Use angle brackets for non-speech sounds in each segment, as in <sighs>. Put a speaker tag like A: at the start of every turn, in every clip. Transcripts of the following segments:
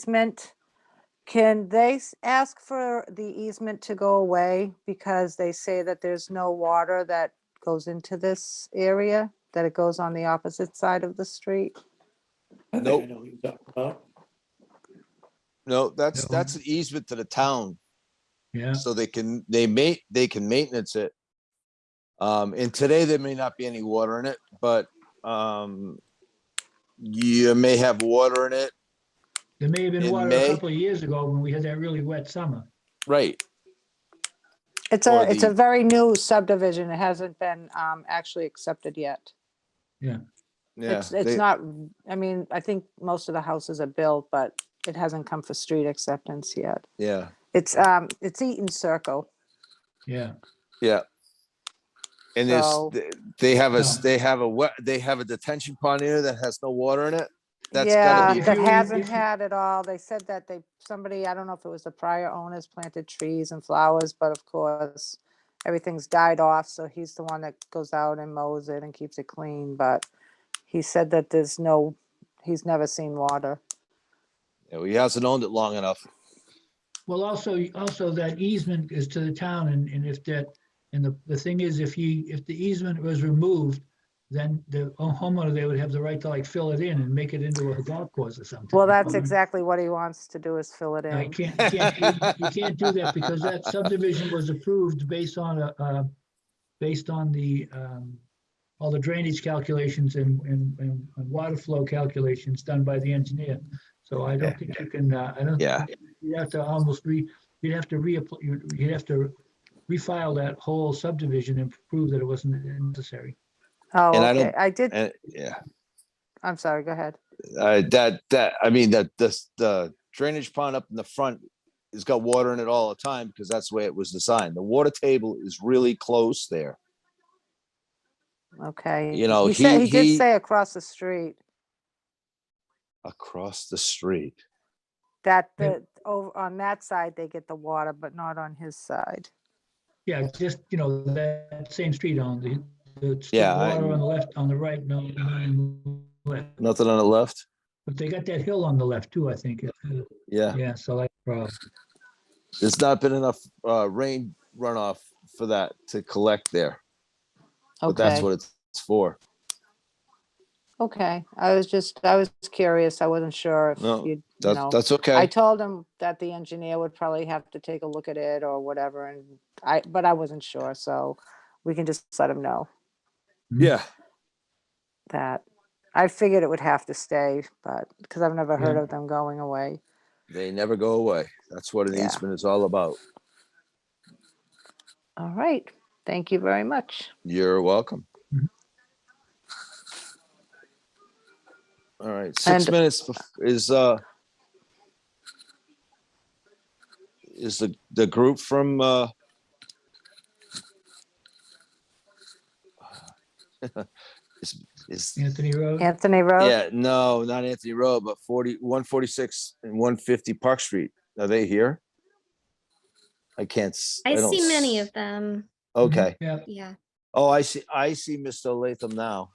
A: easement. Can they s- ask for the easement to go away because they say that there's no water that goes into this area? That it goes on the opposite side of the street?
B: I think
C: Nope.
B: I know what you're talking about.
C: No, that's,
D: No.
C: that's an easement to the town,
D: Yeah,
C: so they can, they ma- they can maintenance it. Um, and today there may not be any water in it, but, um, you may have water in it,
D: there may have been
C: In
D: water
C: May?
D: a couple of years ago when we had that really wet summer.
C: right?
A: It's
C: Or
A: a, it's a
C: the-
A: very new subdivision. It hasn't been um, actually accepted yet.
C: Yeah,
A: It's, it's
C: they-
A: not, I mean, I think most of the houses are built, but it hasn't come for street acceptance yet.
C: yeah,
A: It's, um, it's Eaton Circle.
D: Yeah,
C: yeah. And there's,
A: So-
C: th- they have a, s-
D: No.
C: they have a wet, they have a detention pond here that has no water in it. That's
A: Yeah,
C: gotta be,
D: If
A: that
D: you-
A: hasn't
D: if you-
A: had it all. They said that they, somebody, I don't know if it was the prior owners planted trees and flowers, but of course, everything's died off, so he's the one that goes out and mows it and keeps it clean, but he said that there's no, he's never seen water.
C: Yeah, he hasn't owned it long enough.
D: well, also, also that easement is to the town and, and if that, and the, the thing is, if you, if the easement was removed, then the homeowner, they would have the right to like fill it in and make it into a golf course or something.
A: Well,
C: Mm-hmm.
A: that's
D: Um,
A: exactly what he wants to do is fill it
D: I
A: in.
D: can't, you can't,
C: <laughs>
D: you can't do that because that subdivision was approved based on a, uh, based on the, um, all the drainage calculations and, and, and and water flow calculations done by the engineer. So I don't think you can, uh, I don't.
C: Yeah.
D: You have to almost re, you'd have to reapply, you'd, you'd have to refile that whole subdivision and prove that it wasn't necessary.
A: Oh,
C: and I
A: okay.
C: don't-
A: I did,
C: And, yeah,
A: I'm sorry, go ahead.
C: uh, that, that, I mean, that, this, the drainage pond up in the front has got water in it all the time because that's the way it was designed. The water table is really close there.
A: Okay.
C: You know,
A: He said,
C: he-
A: he did
C: he-
A: say across the street
C: across the street.
A: that
D: Yeah.
A: the, over on that side, they get the water, but not on his side.
D: Yeah, it's just, you know, that same street on the, the street
C: Yeah, I-
D: water on the left, on the right, no, on the left.
C: Nothing on the left?
D: But they got that hill on the left too, I think. Uh,
C: Yeah,
D: Yeah, so like, uh,
C: there's not been enough uh rain runoff for that to collect there, but that's
A: Okay,
C: what it's for.
A: okay. I was just, I was curious. I wasn't sure if
C: No,
A: you'd, you
C: That's,
A: know.
C: that's
A: I
C: okay.
A: told him that the engineer would probably have to take a look at it or whatever and I, but I wasn't sure, so we can just let him know
C: Yeah,
A: that. I figured it would have to stay, but, because I've never heard
D: Yeah.
A: of them going away.
C: they never go away. That's what an
A: Yeah.
C: easement is all about.
A: All right, thank you very much.
C: You're welcome.
D: Mhm.
C: All right, six
A: And-
C: minutes bef- is, uh, is the, the group from, uh, <sighs> is, is,
D: Anthony Road.
A: Anthony Road,
C: yeah, no, not Anthony Road, but 40, 146 and one fifty Park Street. Are they here? I can't. s-
E: I
C: don't
E: see many
C: s-
E: of Mm-hmm. them.
C: Okay.
D: Yeah,
E: Yeah.
C: Oh, I see, I see Mr. Latham now.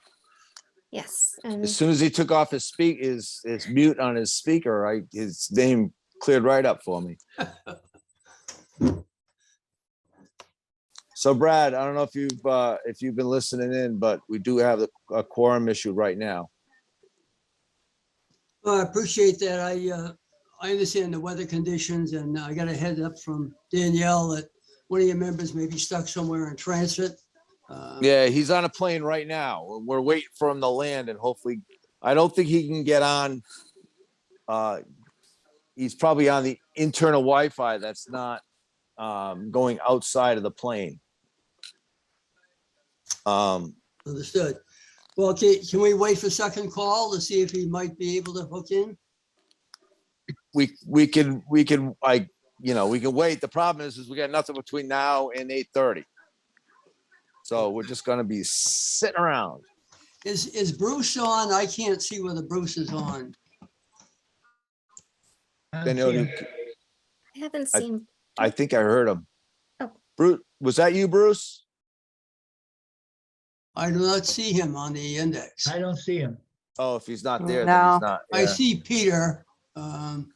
E: Yes. And
C: As soon as he took off his speak, his, his mute on his speaker, I, his name cleared right up for me. So Brad, I don't know if you've, uh, if you've been listening in, but we do have a- a quorum issue right now.
F: Well, I appreciate that. I, uh, I understand the weather conditions and I got a head up from Danielle that one of your members may be stuck somewhere in transit. Uh,
C: Yeah, he's on a plane right now. and We're waiting for him to land and hopefully, I don't think he can get on. Uh, he's probably on the internal Wi-Fi that's not, um, going outside of the plane. Um,
F: Understood. Well, can, can we wait for second call to see if he might be able to hook in?
C: we we can we can I you know we can wait. The problem is is we got nothing between now and eight thirty. So we're just gonna be sitting around.
F: Is, is Bruce on? I can't see whether Bruce is on.
D: I
C: Then it'll-
D: can't-
E: I haven't
C: I-
E: seen.
C: I think I heard him.
E: Oh.
C: Bruce, was that you, Bruce?
F: I do not see him on the index.
D: I don't see him.
C: Oh, if he's not there, then
A: No.
C: he's not.
F: I
C: yeah.
F: see Peter. um,